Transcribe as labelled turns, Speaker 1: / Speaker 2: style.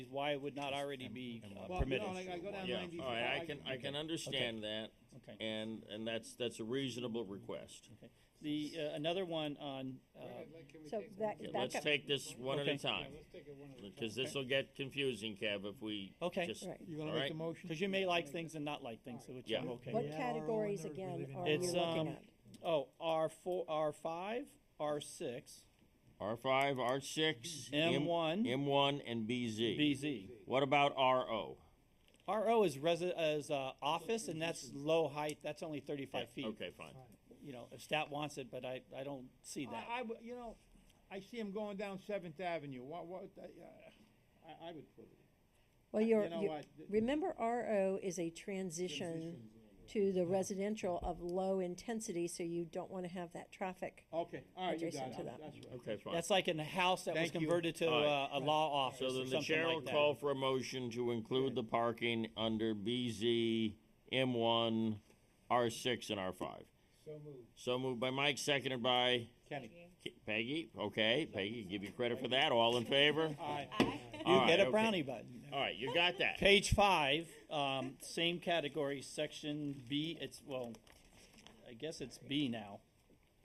Speaker 1: why it would not already be uh,
Speaker 2: Well, you
Speaker 1: permitted.
Speaker 2: know, like I go down
Speaker 3: Yeah,
Speaker 2: ninety-four.
Speaker 3: all right, I can, I can understand that,
Speaker 1: Okay.
Speaker 3: and, and that's, that's a reasonable request.
Speaker 1: The, uh, another one on, uh,
Speaker 4: Um, So that,
Speaker 3: Yeah,
Speaker 4: back
Speaker 3: Let's
Speaker 4: up,
Speaker 3: take this one at
Speaker 1: Okay.
Speaker 3: a time, because this'll get confusing, Kev, if we
Speaker 1: Okay.
Speaker 3: just,
Speaker 4: right.
Speaker 2: You gonna
Speaker 3: All
Speaker 2: make
Speaker 3: right.
Speaker 2: the motion?
Speaker 1: because you may like things and not like things, so which I'm
Speaker 3: Yeah.
Speaker 1: okay
Speaker 4: What
Speaker 1: with.
Speaker 4: categories again are you
Speaker 1: It's, um,
Speaker 4: looking at?
Speaker 1: Oh, R four, R five, R six,
Speaker 3: R five, R six,
Speaker 1: M one,
Speaker 3: M one, and BZ.
Speaker 1: BZ.
Speaker 3: What about RO?
Speaker 1: RO is resi- is, uh, office, and that's low height, that's only thirty-five feet.
Speaker 3: Okay, fine.
Speaker 1: You know, if stat wants it, but I, I don't see that.
Speaker 2: I, I would- you know, I see him going down Seventh Avenue, what, what, uh, I, I would put it.
Speaker 4: Well,
Speaker 2: you
Speaker 4: you're,
Speaker 2: know
Speaker 4: you-
Speaker 2: what?
Speaker 4: remember RO is a transition to the residential of low intensity, so you don't wanna have that traffic.
Speaker 2: Okay, all right, you got
Speaker 4: Adjacent
Speaker 2: it,
Speaker 4: to
Speaker 2: I'm-
Speaker 4: that.
Speaker 2: that's right.
Speaker 3: Okay, fine.
Speaker 1: That's like in a house that was
Speaker 2: Thank you.
Speaker 1: converted to
Speaker 3: All
Speaker 1: uh,
Speaker 3: right.
Speaker 1: a law office
Speaker 3: So
Speaker 1: or
Speaker 3: then the
Speaker 1: something
Speaker 3: chair will
Speaker 1: like
Speaker 3: call
Speaker 1: that.
Speaker 3: for a motion to include the parking under BZ, M one, R six, and R five.
Speaker 2: So moved.
Speaker 3: So moved by Mike, seconded by
Speaker 2: Kenny.
Speaker 3: K- Peggy. Okay, Peggy, give you credit for that. All in favor?
Speaker 2: All right,
Speaker 3: All
Speaker 1: You
Speaker 3: right,
Speaker 1: get a
Speaker 3: okay.
Speaker 1: brownie button.
Speaker 3: All right, you got that.
Speaker 1: Page five, um, same category, section B, it's, well, I guess it's B now.